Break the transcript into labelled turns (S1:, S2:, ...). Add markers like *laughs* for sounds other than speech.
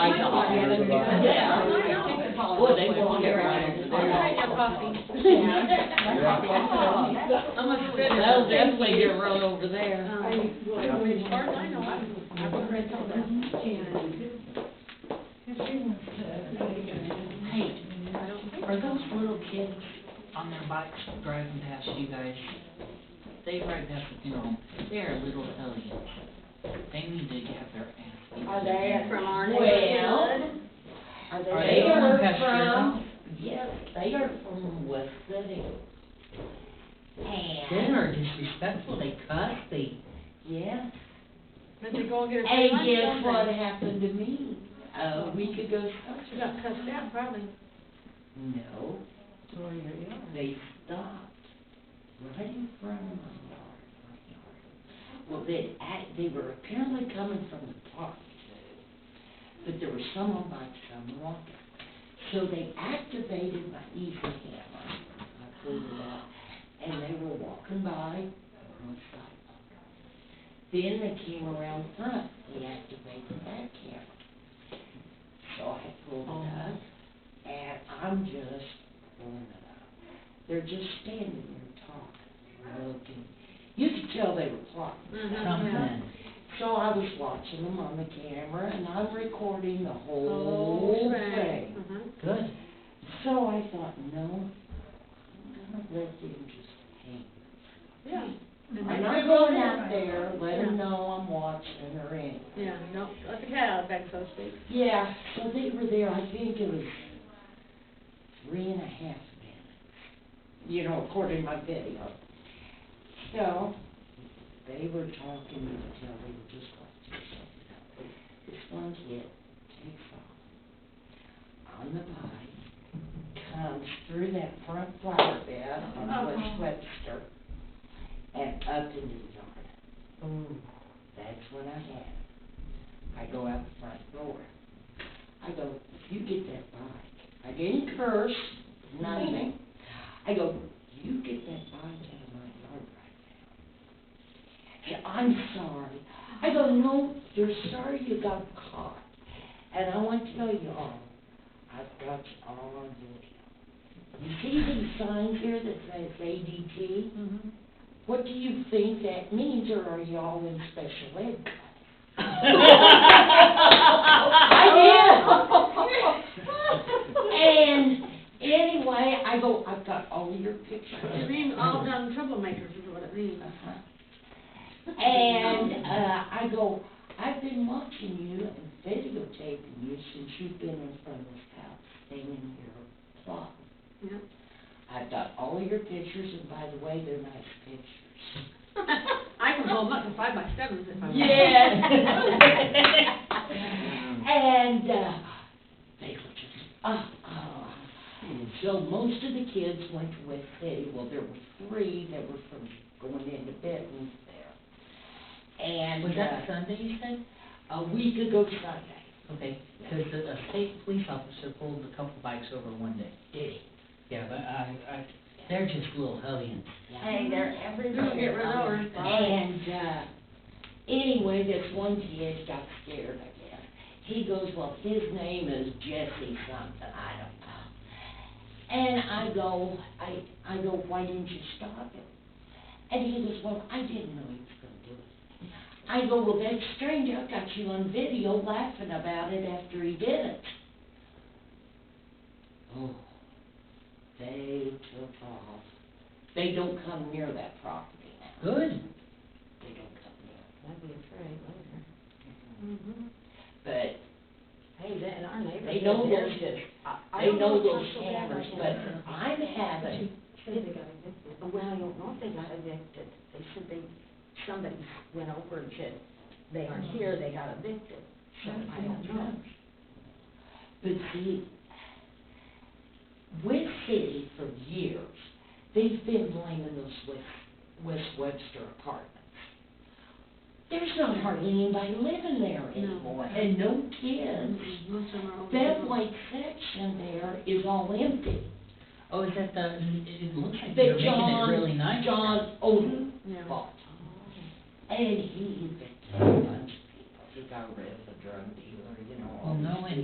S1: oh,
S2: then you-
S3: Yeah.
S1: Boy, they won't get around.
S3: I'll buy your
S1: Yeah.
S3: I'm a good.
S1: That'll definitely get run over there.
S3: As far as I know, I'm, I'm a red holder. I don't think.
S1: Are those little kids on their bikes driving past you guys? They ride that, you know, they're little hellions. They need to have their ass.
S4: Are they from our
S2: Well-
S4: neighborhood? Are
S1: Are they
S4: they?
S1: the one
S2: are
S1: past your
S2: from-
S1: house?
S2: Yes, they are from West City.
S1: They
S2: And,
S1: are disrespectful, they cuss, they,
S2: yeah.
S3: Did they go and get a.
S2: And
S3: free lunch,
S2: guess what
S3: didn't
S2: happened to me a week ago?
S3: they? She got cussed out, probably.
S2: No, they stopped right in front of my yard. Well, they act, they were apparently coming from the park too, but there was someone by some walking. So they activated my easy hammer, I pulled it out, and they were walking by on the sidewalk. Then they came around front, they activated that camera. So I pulled it up, and I'm just pulling it up. They're just standing there talking, and looking. You could tell they were plotting. mm-hmm.
S1: something.
S2: So I was watching them on the camera, and I'm recording the whole thing.
S3: Mhm.
S1: Good.
S2: So I thought, no, I'm gonna let them just hang.
S3: Yeah. And
S2: I'm
S3: they-
S2: not going out there, let them know I'm watching or anything.
S3: Yeah, no, let the cat out of the bag, so to speak.
S2: Yeah, so they were there, I think it was three and a half minutes, you know, according to my video. So, they were talking, you could tell they were just watching something else. This one kid takes off on the bike, comes through that front flower bed on West Webster, and up into the yard. That's when I had it. I go out the front door. I go, you get that bike. I didn't curse, nothing. I go, you get that bike out of my yard right now. And I'm sorry. I go, no, you're sorry you got caught. And I want to know you all. I've got you all on video. You see these signs here that says ADT?
S4: Mm-hmm.
S2: What do you think that means, or are y'all in special ed? I did. And anyway, I go, I've got all your
S3: It
S2: pictures.
S3: means all done troublemakers is what it means.
S2: Uh-huh. And, uh, I go, I've been watching you and videotaping you since you've been in front of this house, staying here plotting.
S3: Yeah. *laughs*
S2: I've got all your pictures, and by the way, they're nice pictures.
S3: I can blow them up in five by sevens if I want.
S2: Yes.
S1: *laughs*
S3: *laughs*
S2: And, uh, they were just, uh, uh, so most of the kids went to West City, well, there were three that were from going into Benton's there. And,
S1: Was that
S2: uh,
S1: Sunday, you said?
S2: a week ago Sunday,
S1: Okay, because a state police officer pulled a couple bikes over one day.
S2: did he?
S1: Yeah, but I, I, they're just little hellions.
S4: Hey, they're
S3: Don't get run over.
S4: everywhere.
S2: And, uh, anyway, this one kid got scared, I guess. He goes, well, his name is Jesse something, I don't know. And I go, I, I go, why didn't you stop him? And he goes, well, I didn't know he was gonna do it. I go, well, that's strange, I've got you on video laughing about it after he did it. Oh, they took off. They don't come near that property now.
S1: Good.
S2: They don't come near.
S4: I'd be afraid later.
S3: Mhm.
S2: But
S4: Hey, that, in our neighborhood.
S2: they know
S4: they're
S2: those,
S4: just- I- I
S2: they
S4: don't
S2: know
S4: if
S2: those
S4: that's so bad
S2: cameras,
S4: right now.
S2: but I'm having,
S4: Said they got evicted. Oh, Well, I don't know if they got evicted. They said they, somebody went over and said, they aren't here, they got evicted. So I don't know.
S2: but see, West City for years, they've been blaming those West, West Webster apartments. There's not hardly anybody living there
S3: No.
S2: anymore, and no kids.
S3: Most of them are older
S2: That
S3: people.
S2: white section there is all empty.
S1: Oh, is that the, it it looks like they're
S2: That
S1: making it
S2: John,
S1: really nice.
S2: John Odom
S3: Yeah.
S2: bought. And he evicted a bunch of people, he got rid of the drug dealer, you know, all
S1: Well,
S2: these
S1: no, and